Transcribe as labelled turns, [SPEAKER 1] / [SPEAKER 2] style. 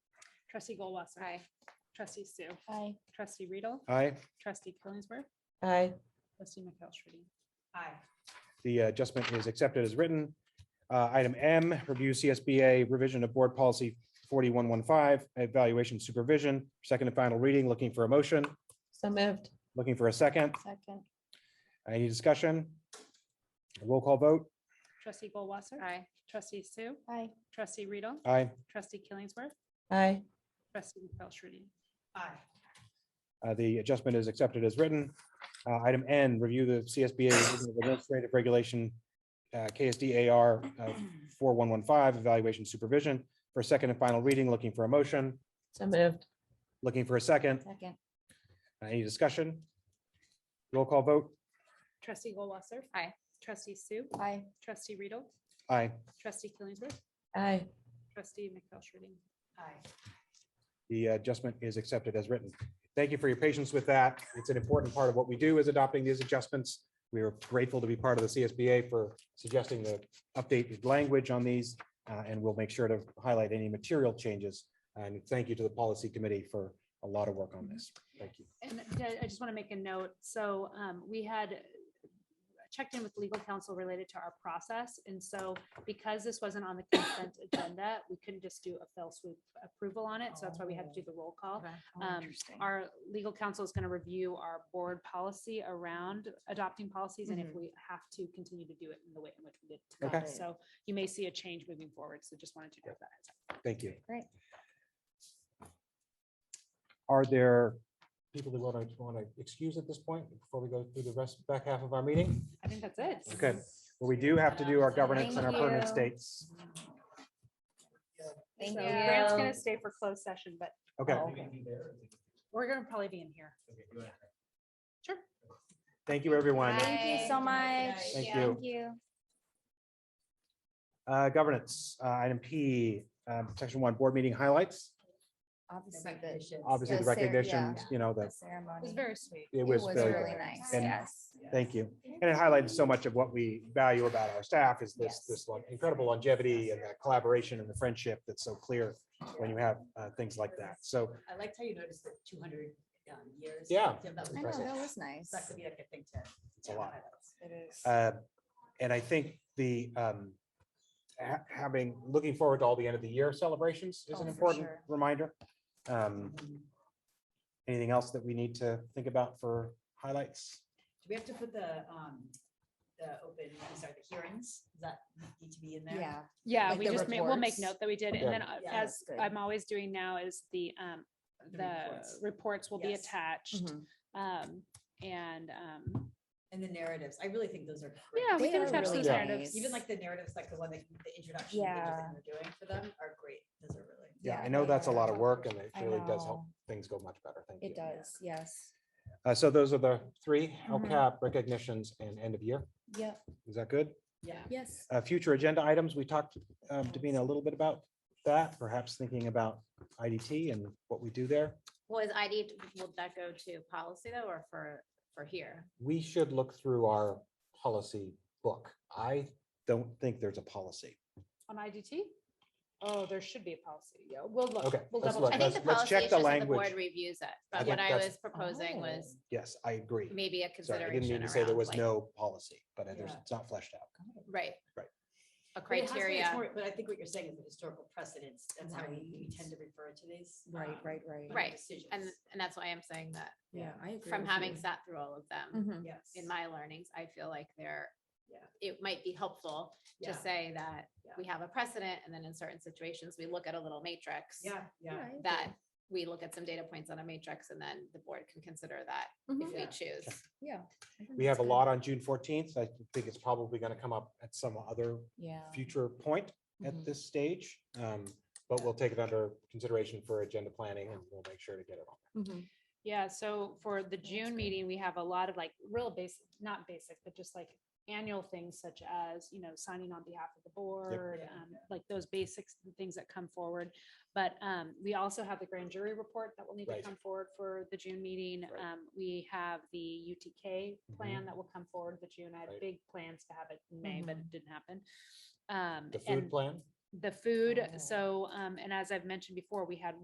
[SPEAKER 1] Trustee Goldwasser.
[SPEAKER 2] Aye.
[SPEAKER 1] Trustee Sue.
[SPEAKER 2] Aye.
[SPEAKER 1] Trustee Riedel.
[SPEAKER 3] Aye.
[SPEAKER 1] Trustee Killingsworth.
[SPEAKER 4] aye,
[SPEAKER 1] Trustee McFellshreedy.
[SPEAKER 5] aye,
[SPEAKER 3] The adjustment is accepted as written. Uh, Item M, review CSBA revision of board policy 4115, evaluation supervision, second and final reading, looking for a motion,
[SPEAKER 4] so moved,
[SPEAKER 3] looking for a second.
[SPEAKER 2] Second.
[SPEAKER 3] Any discussion? Roll call vote.
[SPEAKER 1] Trustee Goldwasser.
[SPEAKER 2] Aye.
[SPEAKER 1] Trustee Sue.
[SPEAKER 2] Aye.
[SPEAKER 1] Trustee Riedel.
[SPEAKER 3] Aye.
[SPEAKER 1] Trustee Killingsworth.
[SPEAKER 4] aye,
[SPEAKER 1] Trustee McFellshreedy.
[SPEAKER 5] aye,
[SPEAKER 3] Uh, The adjustment is accepted as written. Uh, Item N, review the CSBA revision of Administrative Regulation, uh, KSDAR uh, 4115, evaluation supervision for second and final reading, looking for a motion,
[SPEAKER 4] so moved,
[SPEAKER 3] looking for a second.
[SPEAKER 2] Second.
[SPEAKER 3] Uh, Any discussion? Roll call vote.
[SPEAKER 1] Trustee Goldwasser.
[SPEAKER 2] Aye.
[SPEAKER 1] Trustee Sue.
[SPEAKER 2] Aye.
[SPEAKER 1] Trustee Riedel.
[SPEAKER 3] Aye.
[SPEAKER 1] Trustee Killingsworth.
[SPEAKER 4] aye,
[SPEAKER 1] Trustee McFellshreedy.
[SPEAKER 5] aye.
[SPEAKER 3] The adjustment is accepted as written. Thank you for your patience with that. It's an important part of what we do is adopting these adjustments. We are grateful to be part of the CSBA for suggesting the updated language on these, uh, and we'll make sure to highlight any material changes. And thank you to the policy committee for a lot of work on this. Thank you.
[SPEAKER 1] And I- I just want to make a note. So um, we had checked in with legal counsel related to our process. And so because this wasn't on the consent agenda, we couldn't just do a fell swoop approval on it. So that's why we had to do the roll call. Um, Our legal counsel is going to review our board policy around adopting policies and if
[SPEAKER 2] Mm-hmm.
[SPEAKER 1] we have to continue to do it in the way in which we did.
[SPEAKER 3] Okay.
[SPEAKER 1] tonight. So you may see a change moving forward. So just wanted to give that. heads up.
[SPEAKER 3] Thank you.
[SPEAKER 2] Great.
[SPEAKER 3] Are there people that want to, want to excuse at this point before we go through the rest, back half of our meeting?
[SPEAKER 1] I think that's it.
[SPEAKER 3] Okay, well, we do have to do our governance and our
[SPEAKER 2] Thank
[SPEAKER 3] permanent
[SPEAKER 2] you.
[SPEAKER 3] states.
[SPEAKER 2] Thank
[SPEAKER 1] So Grant's
[SPEAKER 2] you.
[SPEAKER 1] gonna stay for closed session, but
[SPEAKER 3] Okay,
[SPEAKER 1] we're gonna probably be in here. Sure.
[SPEAKER 3] thank you, everyone.
[SPEAKER 2] Thank you so much.
[SPEAKER 3] Thank you.
[SPEAKER 2] you.
[SPEAKER 3] Uh, Governance, uh, item P, um, section one, board meeting highlights.
[SPEAKER 2] Obviously, the.
[SPEAKER 3] Obviously, the
[SPEAKER 2] cer- yeah,
[SPEAKER 3] recognitions, you know,
[SPEAKER 2] The
[SPEAKER 3] that
[SPEAKER 2] ceremony.
[SPEAKER 1] It was very sweet.
[SPEAKER 3] it was
[SPEAKER 2] really
[SPEAKER 3] very,
[SPEAKER 2] nice,
[SPEAKER 3] and-
[SPEAKER 2] yes.
[SPEAKER 3] thank you. And it highlighted so much of what we value about our staff is this,
[SPEAKER 2] Yes.
[SPEAKER 3] this like, incredible longevity and that collaboration and the friendship that's so clear when you have uh, things like that. So
[SPEAKER 5] I liked how you noticed the two hundred um, years.
[SPEAKER 3] Yeah.
[SPEAKER 5] That was
[SPEAKER 2] I know,
[SPEAKER 3] Impressive.
[SPEAKER 2] that
[SPEAKER 5] impressive.
[SPEAKER 2] was nice.
[SPEAKER 5] That could be like a thing to.
[SPEAKER 3] It's a lot.
[SPEAKER 2] It is.
[SPEAKER 3] Uh, And I think the, um, ha- having, looking forward to all the end of the year celebrations is
[SPEAKER 2] Oh,
[SPEAKER 3] an
[SPEAKER 2] for
[SPEAKER 3] important
[SPEAKER 2] sure.
[SPEAKER 3] reminder. Um, Anything else that we need to think about for highlights?
[SPEAKER 5] Do we have to put the, um, the open, I'm sorry, the hearings, does that need to be in there?
[SPEAKER 2] Yeah.
[SPEAKER 1] Yeah,
[SPEAKER 2] Like
[SPEAKER 1] we
[SPEAKER 2] the
[SPEAKER 1] just made, we'll make
[SPEAKER 2] reports.
[SPEAKER 1] note that we did,
[SPEAKER 3] Yeah.
[SPEAKER 1] and then uh,
[SPEAKER 5] Yeah,
[SPEAKER 1] as
[SPEAKER 2] that's good.
[SPEAKER 1] I'm always doing now is the, um,
[SPEAKER 5] The
[SPEAKER 1] the
[SPEAKER 5] reports.
[SPEAKER 1] reports will be
[SPEAKER 5] Yes.
[SPEAKER 3] Mm-hmm.
[SPEAKER 1] attached.
[SPEAKER 2] Mm-hmm.
[SPEAKER 4] Mhm.
[SPEAKER 1] Um, and, um,
[SPEAKER 5] And the narratives, I really think those are. great.
[SPEAKER 1] yeah, we
[SPEAKER 2] They
[SPEAKER 1] can
[SPEAKER 2] are
[SPEAKER 1] attach
[SPEAKER 2] really
[SPEAKER 1] those narratives.
[SPEAKER 2] nice.
[SPEAKER 5] Even like the narratives, like the one that, you- the introduction pages that
[SPEAKER 2] Yeah.
[SPEAKER 5] you're doing for them are great, those are really.
[SPEAKER 3] Yeah,
[SPEAKER 2] Yeah,
[SPEAKER 3] I know
[SPEAKER 2] like
[SPEAKER 3] that's a
[SPEAKER 2] our-
[SPEAKER 3] lot of work and it
[SPEAKER 2] I
[SPEAKER 3] really does help
[SPEAKER 2] know.
[SPEAKER 3] things go much better. Thank
[SPEAKER 2] It
[SPEAKER 3] you.
[SPEAKER 2] does, yes.
[SPEAKER 3] Uh, So those are the three
[SPEAKER 2] Mhm.
[SPEAKER 3] LCAP recognitions and end of year.
[SPEAKER 2] Yep,
[SPEAKER 3] Is that good?
[SPEAKER 5] Yeah.
[SPEAKER 2] yes.
[SPEAKER 3] Uh, Future agenda items, we talked, um, Davina, a little bit about that, perhaps thinking about IDT and what we do there.
[SPEAKER 6] Was ID, will that go to policy though, or for, for here?
[SPEAKER 3] we should look through our policy book. I don't think there's a policy.
[SPEAKER 1] On IDT? Oh, there should be a policy. Yeah, we'll look.
[SPEAKER 3] Okay,
[SPEAKER 1] We'll
[SPEAKER 3] let's
[SPEAKER 1] double
[SPEAKER 3] look.
[SPEAKER 6] I
[SPEAKER 1] check.
[SPEAKER 6] think the
[SPEAKER 3] let's
[SPEAKER 6] policy
[SPEAKER 3] check
[SPEAKER 6] is
[SPEAKER 3] the
[SPEAKER 6] just that the
[SPEAKER 3] language.
[SPEAKER 6] board reviews it,
[SPEAKER 3] I
[SPEAKER 6] but
[SPEAKER 3] think
[SPEAKER 6] what I
[SPEAKER 3] that's-
[SPEAKER 6] was proposing
[SPEAKER 5] Oh.
[SPEAKER 2] Oh.
[SPEAKER 6] was
[SPEAKER 3] Yes, I agree.
[SPEAKER 6] maybe a
[SPEAKER 3] Sorry, I didn't mean
[SPEAKER 6] consideration
[SPEAKER 3] to say there
[SPEAKER 6] around,
[SPEAKER 3] was
[SPEAKER 6] like,
[SPEAKER 3] no policy, but it- there's,
[SPEAKER 5] Yeah.
[SPEAKER 3] it's not fleshed out.
[SPEAKER 6] right?
[SPEAKER 3] Right.
[SPEAKER 5] But it has
[SPEAKER 6] A
[SPEAKER 5] to be- it's
[SPEAKER 6] criteria,
[SPEAKER 5] more- But I think what you're saying is the historical precedents, that's how we we tend to refer to these.
[SPEAKER 4] Right,
[SPEAKER 5] um,
[SPEAKER 4] right,
[SPEAKER 5] under
[SPEAKER 4] right.
[SPEAKER 6] Right,
[SPEAKER 5] decisions.
[SPEAKER 6] and, and that's why I'm saying that,
[SPEAKER 4] Yeah, I agree.
[SPEAKER 6] from
[SPEAKER 4] with
[SPEAKER 6] having
[SPEAKER 4] you.
[SPEAKER 6] sat through all of them
[SPEAKER 4] Mhm.
[SPEAKER 5] Yes.
[SPEAKER 6] in my learnings, I feel like there,
[SPEAKER 5] Mm-hmm. Yeah.
[SPEAKER 6] it might be helpful to
[SPEAKER 5] Yeah.
[SPEAKER 6] say that
[SPEAKER 5] Yeah.
[SPEAKER 6] we have a precedent, and then in certain situations, we look at a little matrix.
[SPEAKER 5] Yeah, yeah.
[SPEAKER 4] I
[SPEAKER 6] That
[SPEAKER 4] agree.
[SPEAKER 6] we look at some data points on a matrix, and then the board can consider that if
[SPEAKER 2] Mhm.
[SPEAKER 6] we
[SPEAKER 5] Mm-hmm. Yeah.
[SPEAKER 6] choose.
[SPEAKER 2] Yeah. I think
[SPEAKER 3] We
[SPEAKER 2] that's
[SPEAKER 3] have a
[SPEAKER 2] good.
[SPEAKER 3] lot on June fourteenth. I think it's probably going to come up at some other
[SPEAKER 2] Yeah.
[SPEAKER 3] future point at
[SPEAKER 6] Mm-hmm.
[SPEAKER 4] Mhm.
[SPEAKER 3] this stage. Um, But we'll take it under consideration for agenda planning and we'll make sure to get it on.
[SPEAKER 4] Mhm.
[SPEAKER 1] Yeah, so for
[SPEAKER 3] Oh,
[SPEAKER 1] the June meeting, we have a lot of like real basic, not basic, but just like annual things such as, you know, signing on behalf of the board,
[SPEAKER 5] Yeah.
[SPEAKER 1] um, like those basics, the things that come forward. But um, we also have the grand jury report that will need to
[SPEAKER 3] Right.
[SPEAKER 1] come forward for the June meeting.
[SPEAKER 3] Right. Mm-hmm.
[SPEAKER 1] Um, We have the UTK plan that will come forward the June. I had
[SPEAKER 3] Right.
[SPEAKER 1] big plans to have it in May, but
[SPEAKER 4] Mhm.
[SPEAKER 1] it didn't happen. Um,
[SPEAKER 3] The food
[SPEAKER 1] And
[SPEAKER 3] plan?
[SPEAKER 1] the food,
[SPEAKER 4] Oh.
[SPEAKER 1] so, um, and as I've mentioned before, we had